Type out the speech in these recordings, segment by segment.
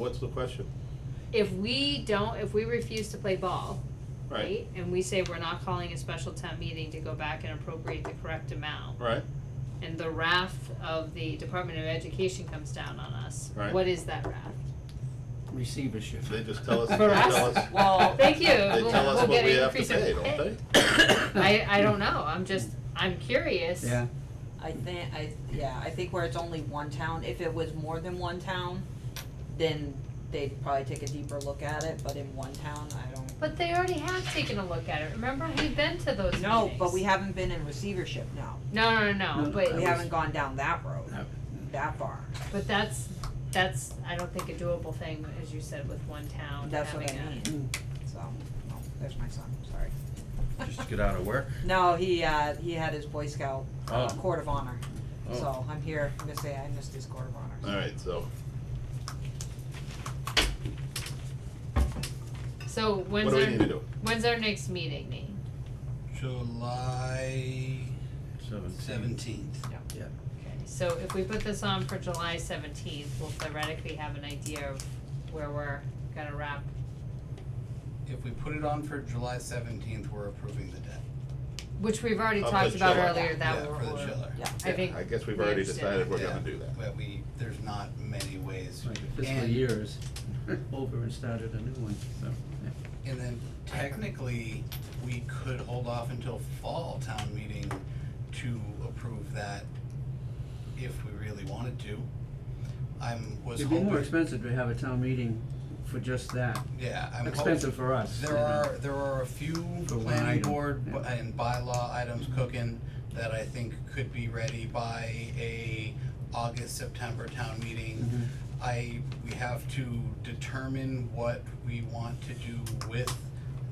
What's the question? If we don't, if we refuse to play ball, Right, right, and we say we're not calling a special town meeting to go back and appropriate the correct amount, right, and the wrath of the Department of Education comes down on us, Right. what is that wrath? receivership. they just tell us, they For tell us? us, Well- Thank you, they Uh, we'll, tell us we'll what get we an have to increase in pay, don't they? I, I don't know, I'm just, I'm curious. Yeah, I think, I, yeah, I think where it's only one town, if it was more than one town, then they'd probably take a deeper look at it, but in one town, I don't. But they already have taken a look at it, remember, we've been to those meetings. No, but we haven't been in receivership now, No, no, no, No, no, no, but That we was- haven't gone down that road, No. that far, But that's, that's, I don't think a doable thing, as you said, with one town that's having what I a, mean, so, no, there's my son, sorry. Just get out of work? No, he, uh, he had his Boy Scout, uh, Oh. Court of Honor, Oh. so I'm here, I'm gonna say I missed his Court of Honor, so. Alright, so, so what when's do we need to our, do? when's our next meeting, Nate? July Seventeen. seventeenth. Okay, so if we put this on for July seventeenth, we'll theoretically have an idea of where we're gonna wrap, If we put it on for July seventeenth, we're approving the debt. which we've already Of the talked about chiller. earlier, that Yeah, we're, for the we're- chiller. Yeah. I think, Yeah, I guess we've we already understand decided we're Yeah. gonna do that. But we, there's not many ways. like the fiscal And- year is over and started a new one, so, yeah. And then technically, we could hold off until fall town meeting to approve that if we really wanted to. I'm, was It'd be more hoping, expensive to have a town meeting for just that, yeah, I'm hoping. expensive for us. you There know. are, there are a few For one planning item, board yeah. bu- and bylaw items cooking that I think could be ready by a August, September town meeting. Mhm. I, we have to determine what we want to do with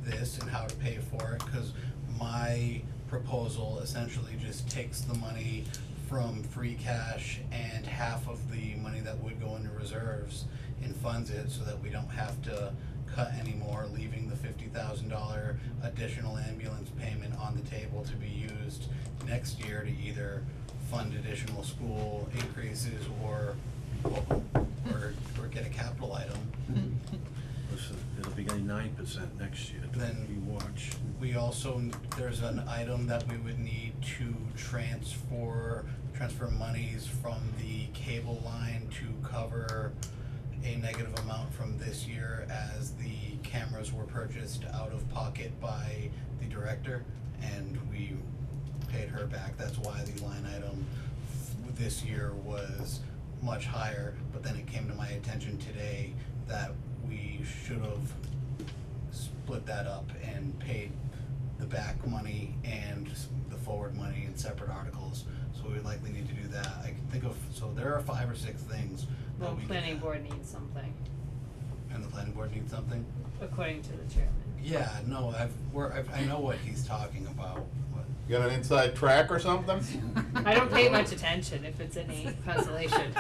this and how to pay for it, cause my proposal essentially just takes the money from free cash and half of the money that would go into reserves and funds it so that we don't have to cut anymore, leaving the fifty thousand dollar additional ambulance payment on the table to be used next year to either fund additional school increases or or or get a capital item. Listen, it'll be getting nine percent next year, Then- you watch. We also, there's an item that we would need to transfer, transfer monies from the cable line to cover a negative amount from this year as the cameras were purchased out of pocket by the director and we paid her back. That's why the line item f- this year was much higher, but then it came to my attention today that we should have split that up and paid the back money and the forward money in separate articles. So we likely need to do that. I can think of, so there are five or six things that well, we. planning board needs something, And the planning board needs something? according to the chairman. Yeah, no, I've, we're, I've, I know what he's talking about, but You got an inside track or something? I don't pay much attention if it's any consolation,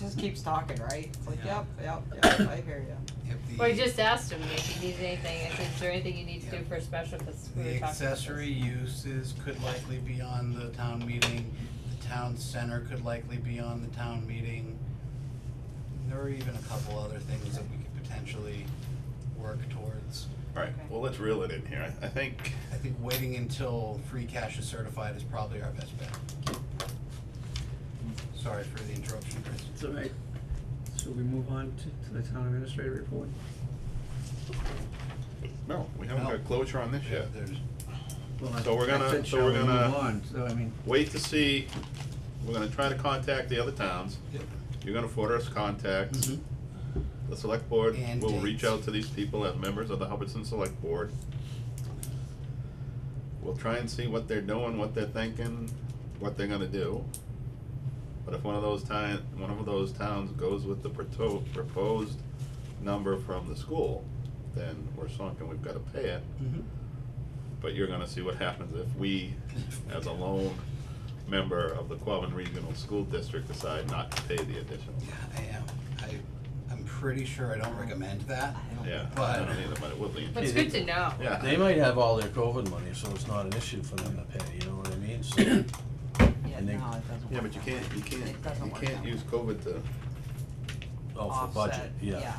Just keeps talking, right? It's like, Yeah. yep, yep, yep, I hear you. if the. well, I just asked him if he needs anything, I said, is there anything you need to do Yeah. for a special, cause we were talking The about this. accessory uses could likely be on the town meeting, the town center could likely be on the town meeting. There are even a couple other things that we could potentially work towards. Alright, Okay. well, let's reel it in here, I I think, I think waiting until free cash is certified is probably our best bet. Sorry for the interruption, Chris. It's all right. So we move on to, to the town administrator report. no, we haven't got closure on this yet. There's Well, I- So we're I gonna- said, so we're shall we move gonna- on? So I mean, Wait to see, we're gonna try to contact the other towns, Yep. you're gonna forward us contacts. Mm-hmm. Mm-hmm. The select board And will reach dates. out to these people as members of the Hubbardson Select Board. We'll try and see what they're doing, what they're thinking, what they're gonna do. But if one of those ti- one of those towns goes with the proto- proposed number from the school, then we're sunk and we've gotta pay it. Mhm. But you're gonna see what happens if we, as a lone member of the Quabbin Regional School District, decide not to pay the additional. I am, I, I'm pretty sure I don't recommend that. Yeah, I But- don't either, but it would be But it's good to know. Yeah. They might have all their COVID money, so it's not an issue for them to pay, you know what I mean? So, Yeah, And they- no, it doesn't Yeah, but you work that way. can't, you can't, It doesn't you work can't that way. use COVID to oh, for budget, Offset, yeah.